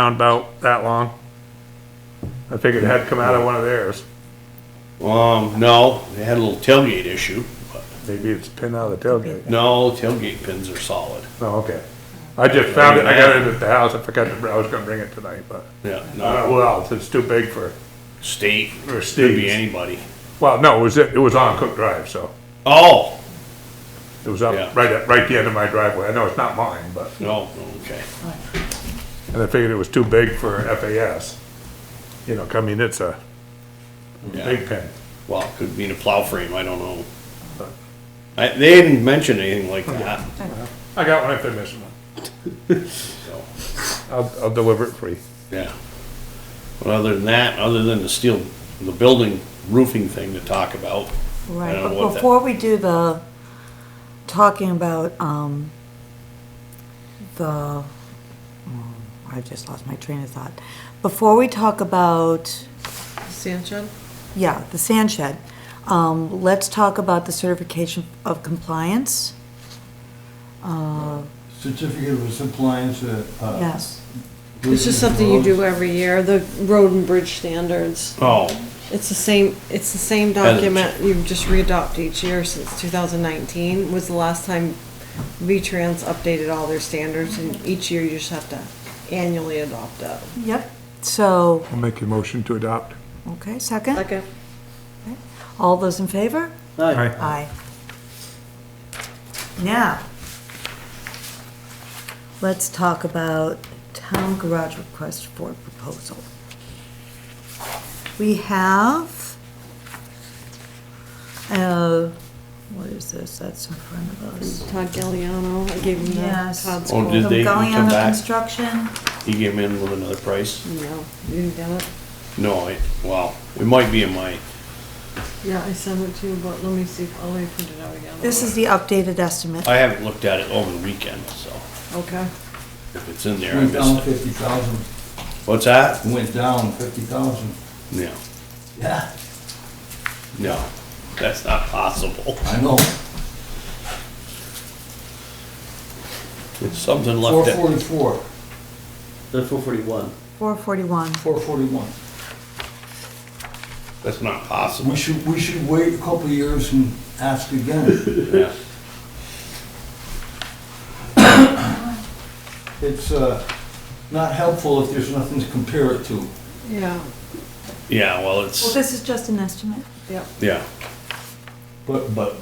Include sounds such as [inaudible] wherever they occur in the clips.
around about that long. I figured it had come out of one of theirs. Um, no, they had a little tailgate issue. but Maybe it's pinned out of the tailgate. No, tailgate pins are solid. No, okay. I just found it, I got it at the house, I forgot, to- I was gonna bring it tonight, but, Yeah, uh, no, well, it's too big for, state, Or could be Steve's. anybody. well, no, it was, it was on Cook Drive, so. Oh, It was Yeah. up, right at, right at the end of my driveway. I know it's not mine, but, no, okay. and I figured it was too big for FAS. You know, I mean, it's a Yeah. big pin. Well, it could be in a plow frame, I don't know. I, they didn't mention anything like that, I got one if they're missing one. so, I'll, I'll deliver it free. yeah. But other than that, other than the steel, the building roofing thing to talk about. I Right, don't know but what that- before we do the, talking about, um, the, oh, I just lost my train of thought. Before we talk about, Sand shed? yeah, the sand shed, um, let's talk about the certification of compliance. Certificate of compliance, uh. uh, Yes, It's just something you do every year, the road and bridge standards. Oh, It's the same, it's the same it- document you just readopt each year since 2019 was the last time V-Trans updated all their standards and each year you just have to annually adopt that. yep, so, I'll make your motion to adopt. okay, second? All those in favor? Aye. Aye. Now, let's talk about town garage request for proposal. We have, uh, what is this? That's in front of us. Todd Galliano, I gave him that. Yes. Todd's Oh, quote. did they Going come on the back? construction. he came in with another price? No, you didn't get it? No, I, well, it might be in my, Yeah, I sent it to you, but let me see, if I'll print it out again. This is the updated estimate. I haven't looked at it over the weekend, so Okay. if it's in there, I Went down missed it. fifty thousand, What's that? went down fifty thousand. No, Yeah. no, that's not possible. I know, It's something four left at, forty-four, The four forty-one. 441. four forty-one. that's not We possible. should, we should wait a couple of years and ask [laughs] again. Yeah. It's, uh, not helpful if there's nothing to compare it to. Yeah, Yeah, well, Well, it's, this is just an estimate. yep. yeah, But, but,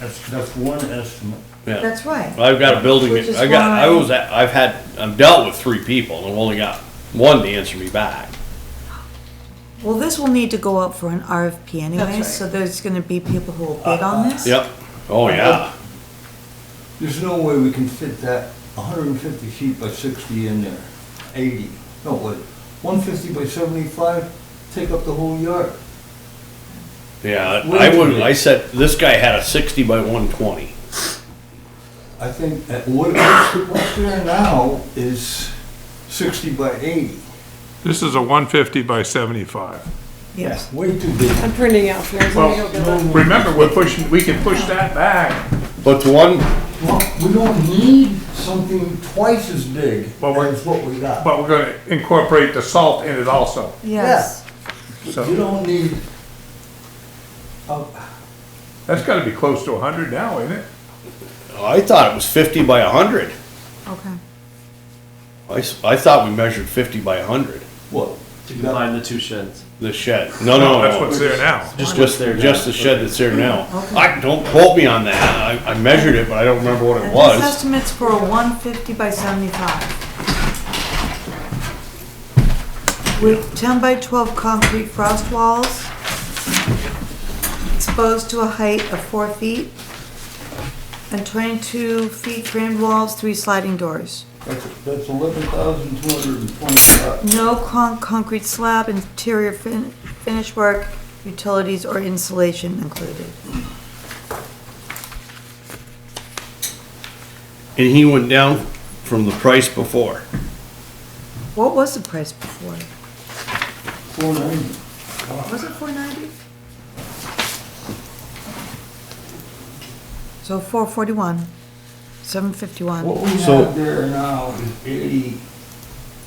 that's, that's one estimate. yeah. That's right. I've got a building, Which is I got, I why- was, at- I've had, I've dealt with three people and I've only got one to answer me back. Well, this will need to go up for an RFP anyway, right. so there's gonna be people who will bid on this. Uh, Yep, oh yeah, There's no way we can fit that hundred and fifty feet by sixty in there, eighty, no, what, one fifty by seventy-five, take up the whole yard. yeah, Wait I a would, minute. I said, this guy had a sixty by one twenty. I think that what, what's there now is sixty by eighty. This is a one fifty by seventy-five. Yes. Way too big. I'm printing out for you. so you don't get Well, that. remember, we're pushing, we can push that back. But the one, Well, we don't need something twice as big But we're- as what we got. But we're gonna incorporate the salt in it also, Yes. You so. don't need, uh, That's gotta be close to hundred now, isn't it? I thought it was fifty by hundred. Okay. I, s- I thought we measured fifty by hundred, what? To combine the two sheds. the shed. No, Oh, no, no. That's what's there now. Just Just, what's there just the now. shed that's there now. I, don't quote me on that, I, I measured it, but I don't remember what it And was. This estimate's for a one fifty by seventy-five. With ten by twelve concrete frost walls, exposed to a height of four feet, and twenty-two feet framed walls, three sliding doors. That's, that's eleven thousand two hundred and twenty-five. No con- concrete slab, interior fin- finish work, utilities or insulation included. And he went down from the price before. What was the price before? Four ninety. Was it four ninety? So four forty-one, seven fifty-one. What we So- have there now is eighty,